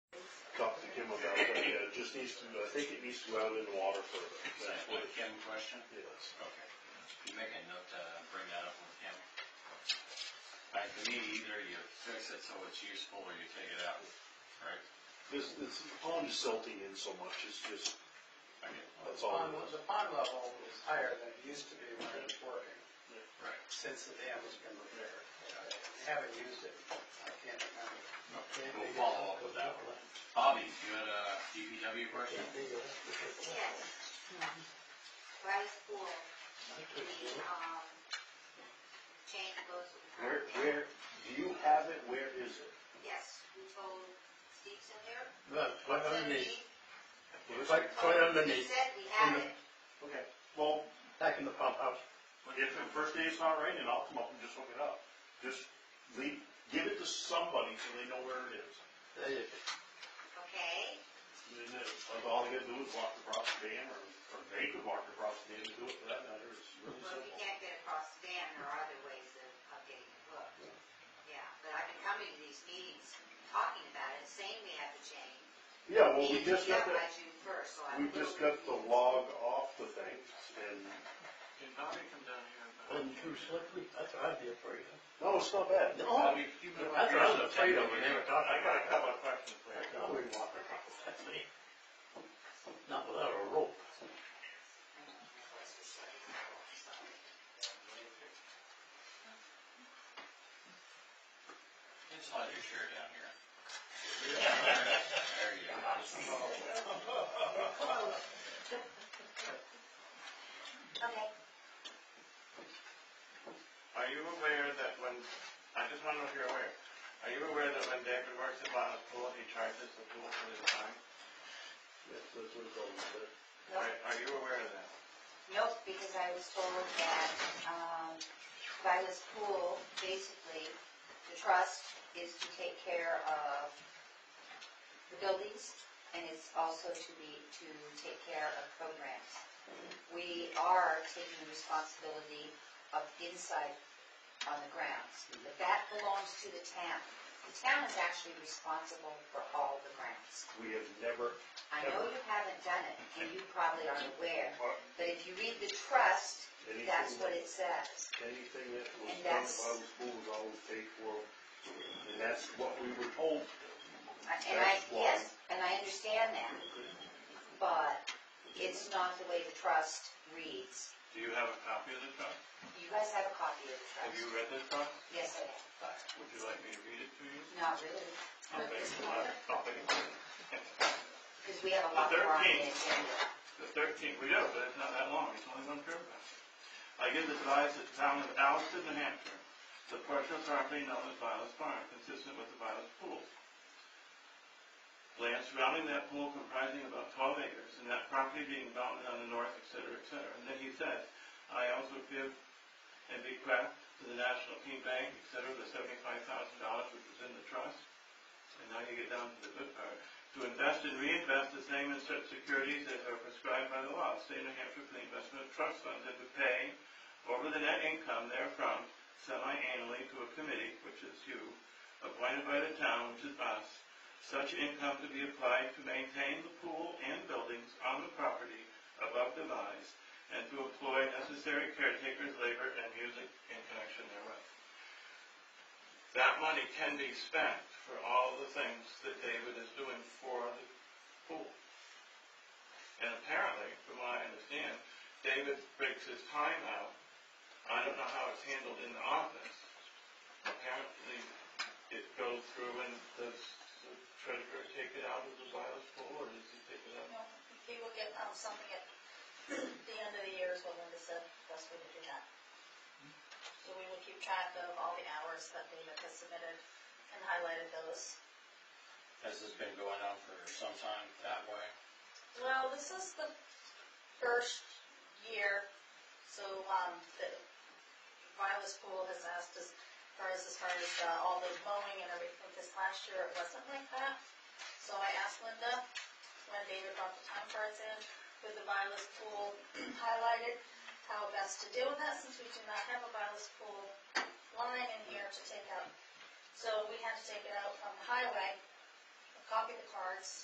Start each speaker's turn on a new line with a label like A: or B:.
A: just needs to, I think it needs to go out in the water further.
B: Is
A: That's
B: that
A: what
B: what
A: it
B: Kim questioned?
A: is.
B: Okay. You make a note to bring that up with Kim. Like, to me, either you fix it so it's useful or you take it out, right?
A: This, this pond is silting in so much, it's just,
B: I get it.
A: that's all.
C: Pond was- the pond level is higher than it used to be when it was working,
B: Right.
C: since the dam has been repaired. I Haven't used it, I can't remember. Can't
B: We'll
C: dig it
B: follow up with that one. Bobby, you had a DPW question?
C: Can't dig it up.
D: Yes. Rice pool, the, um, chain goes.
A: Where, where, do you have it, where is it?
D: Yes, we told Steve's in there.
E: Look, right
D: Said
E: underneath,
D: we-
E: quite, quite
D: He
E: underneath,
D: said we had
E: In
D: it.
A: Okay, well,
E: back in the pump house.
A: if the first day it's not raining, I'll come up and just hook it up. Just leave, give it to somebody so they know where it is.
E: They-
D: Okay,
A: And then, like, all they gotta do is walk across the dam, or, or they could walk across the dam and do it for that matter, it's really
D: well, we
A: simple.
D: can't get across the dam, there are other ways of, of getting it hooked. Yeah, but I've been coming to these meetings, talking about it, saying we have the chain.
A: Yeah, well, we just got the,
D: Meeting by June first, so I'm.
A: we just got the log off the thing, and,
B: Can Bobby come down here?
E: Wasn't too slippery, that's what I'd be afraid of.
A: no, it's not bad.
E: No, that's what I was afraid of, when they were talking.
A: I got a couple of questions for you.
E: No, we walk across that thing. Not without a rope.
B: Just slide your chair down here. There you go.
D: Okay.
F: Are you aware that when, I just want to know if you're aware, are you aware that when David works at Bonnet Pool, he charges the pool for his time?
A: Yes, that's what it's all about.
F: Are are you aware of that?
D: Nope, because I was told that, um, by this pool, basically, the trust is to take care of the buildings, and it's also to be, to take care of programs. We are taking responsibility of inside on the grounds, but that belongs to the town. The town is actually responsible for all the grounds.
A: We have never,
D: I know you haven't done it, and you probably aren't aware, but if you read the trust,
A: anything,
D: that's what it says.
A: anything that was
D: And
A: done
D: that's-
A: by the school was always paid for, and that's what we were told.
D: And I, yes, and I understand that, but it's not the way the trust reads.
F: Do you have a copy of the truck?
D: You guys have a copy of the
F: Have you
D: trust?
F: read the truck?
D: Yes, I have.
F: Would you like me to read it to you?
D: Not really.
F: I'll make it loud. I'll make it loud.
D: Because we have a lot more on the agenda.
F: The thirteenth, we know, but it's not that long, it's only one paragraph. I give advice that the town of Alston, New Hampshire, the partial property known as Violet's Farm, consistent with the Violet's Pool. Land surrounding that pool comprising about twelve acres, and that property being bounded on the north, et cetera, et cetera. And then he says, I also give and bequeath to the National Team Bank, et cetera, the seventy-five thousand dollars which was in the trust. And now you get down to the good part to invest and reinvest the same in such securities as are prescribed by the law. State of New Hampshire for the investment of trust funds and to pay over the net income therefrom semi-annually to a committee, which is you, appointed by the town, which is us, such income to be applied to maintain the pool and buildings on the property above devised, and to employ necessary caretakers, labor, and music in connection therewith. That money can be spent for all the things that David is doing for the pool. And apparently, from what I understand, David breaks his time out. I don't know how it's handled in the office. Apparently, it goes through and does the treasurer take it out of the Silas pool or does he take it out?
G: No, He will get um, something at the end of the year is what Linda said, best way to do that. So we will keep track of all the hours that David has submitted and highlighted those.
B: This has been going on for some time that way.
G: Well, this is the first year, so, um, the Violet's Pool has asked us, for us as far as uh, all the mowing and everything, because last year it wasn't like that. So I asked Linda, when David brought the time cards in, with the Violet's Pool highlighted, how best to deal with that, since we do not have a Violet's Pool line in here to take out. So we had to take it out from the highway, copy the cards,